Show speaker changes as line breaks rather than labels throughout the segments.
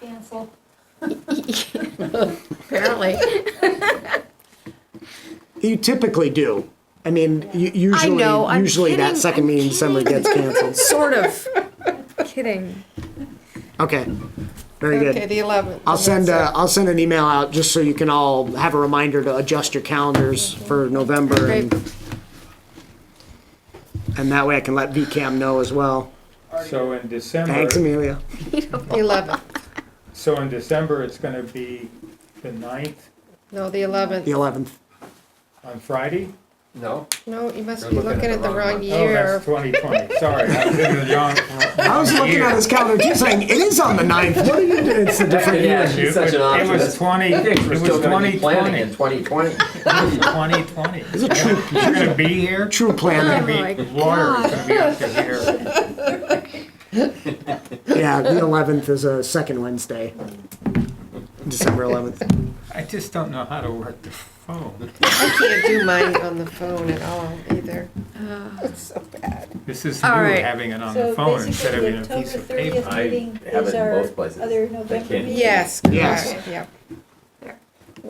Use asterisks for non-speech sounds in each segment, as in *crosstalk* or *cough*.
cancel.
Apparently.
You typically do. I mean, u- usually,
know, I'm
usually that
kidding,
second
I'm
meeting in December
kidding.
gets canceled.
*laughs* Sort of. Kidding.
Okay, very
Okay,
*laughs* good.
the 11th.
I'll send uh, i I'll send an email out just so you can all have a reminder to adjust your calendars for November, and, and that way I can let VCAM know as well.
So in
Thanks,
December,
Amelia.
The 11th.
so in December, it's gonna be the ninth
No, the
The
11th.
11th.
on Friday?
No,
No, you must
You're
be looking at the wrong
one.
Oh,
year.
that's twenty twenty, sorry, I was in the wrong.
*laughs*
I was looking at his calendar too, saying it is on the 9th. What are you doing? It's a different
Yeah,
year.
she's such an
It was
optimist.
twenty,
I
it
think we're
was
still gonna
twenty
be planning in
twenty.
twenty
*laughs*
twenty.
Twenty twenty. You're gonna be here,
True
*laughs*
gonna
planning.
be,
Oh my
lawyer's gonna be up to here.
Yeah, the 11th is a second Wednesday. December 11th.
I just don't know how to work the phone.
*laughs* I can't do mine on the phone at all either. It's so bad.
This is new,
All right.
having it on the phone instead of in a
So
piece
basically,
of
the October
paper.
I
30th meeting
have
is
it in
our
both places.
other
I
November
can't-
meeting.
Yes,
Yes.
correct, yeah.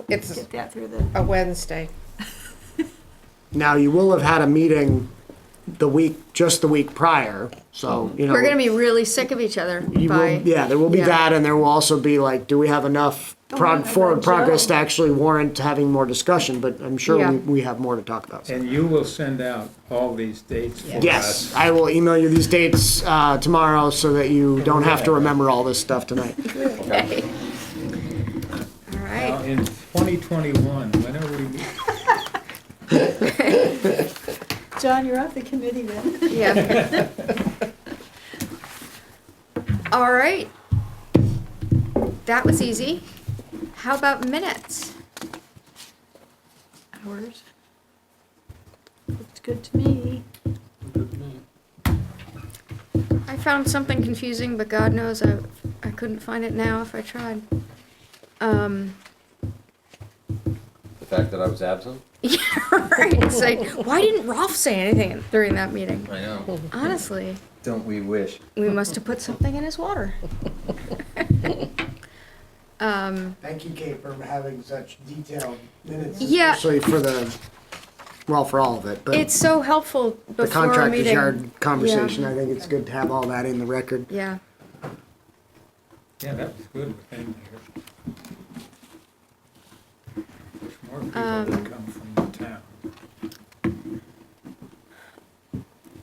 It's
Get that through the.
a Wednesday.
Now, you will have had a meeting the week, just the week prior, so, you know.
We're gonna be really sick of each other
you will-
by,
Yeah, there will be
Yeah.
that, and there will also be like, do we have enough
Oh
prog,
my
forward
God,
progress
Joe.
to actually warrant having more discussion, but I'm sure
Yeah.
we, we have more to talk about.
And you will send out all these dates for us.
Yes, I will email you these dates, uh, tomorrow so that you don't have to remember all this stuff tonight.
all
Now,
right.
in 2021, when are we,
John, you're off the committee then.
Yeah.
*laughs*
All right. That was easy. How about minutes?
Hours. Looks good to me.
I found something confusing, but God knows I, I couldn't find it now if I tried. Um, *laughs*
The fact that I was absent?
yeah, right. It's like, why didn't Rolf say anything during that meeting?
I know.
Honestly,
Don't we wish?
we must have put something in his
*laughs*
water. *laughs* Um,
Thank you, Kate, for having such detailed minutes.
Yeah.
Especially for the, well, for all of it, but.
It's so helpful
the
before a
contractor's
meeting.
yard conversation, I think it's good to have all that in the record.
Yeah,
yeah, that was good. Thank you. Wish more people
Um,
would come from the town.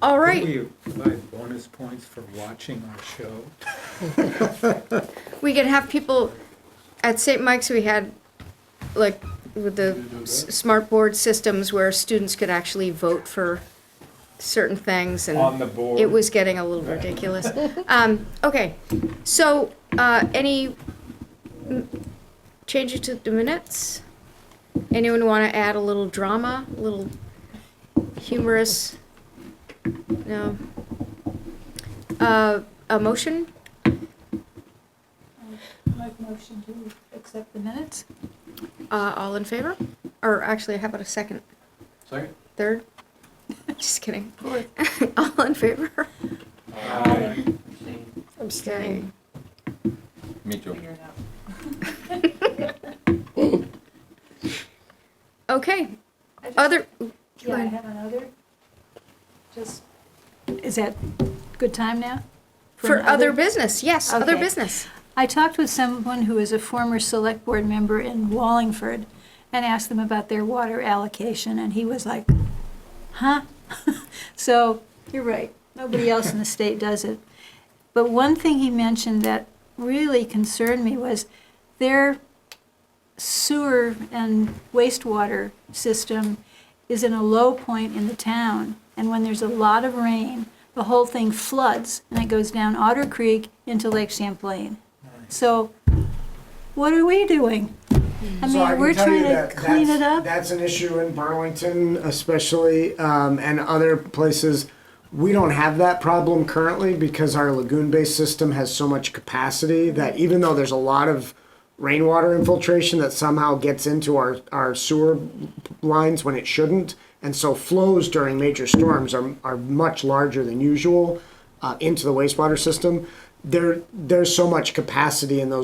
all
Could
right,
we provide bonus points for watching our show?
we can have people, at St. Mike's, we had, like, with the s- smart board systems where students could actually vote for certain things
On
and
the board?
it was getting a little ridiculous. Um, okay, so, uh, any m- changes to the minutes? Anyone wanna add a little drama, a little humorous? No. Uh, a motion?
Make motion to accept the minutes.
Uh, all in favor? Or actually, how about a second?
Sorry?
Third? *laughs* Just kidding. *laughs* all in favor?
I'm
Okay.
staying.
Me too.
Okay.
I just-
Other.
Yeah, I have another. Just, is that good time now?
For
an
other business, yes, other
Okay.
business.
I talked with someone who is a former select board member in Wallingford and asked them about their water allocation, and he was like, huh? *laughs* So, you're right, nobody else in the state does it. But one thing he mentioned that really concerned me was their sewer and wastewater system is in a low point in the town, and when there's a lot of rain, the whole thing floods, and it goes down Otter Creek into Lake Champlain. So, what are we doing? I mean, we're trying to clean it up.
That's an issue in Burlington especially, um, and other places. We don't have that problem currently because our lagoon-based system has so much capacity that even though there's a lot of rainwater infiltration that somehow gets into our, our sewer lines when it shouldn't, and so flows during major storms are, are much larger than usual uh, into the wastewater system. There, there's so much capacity in those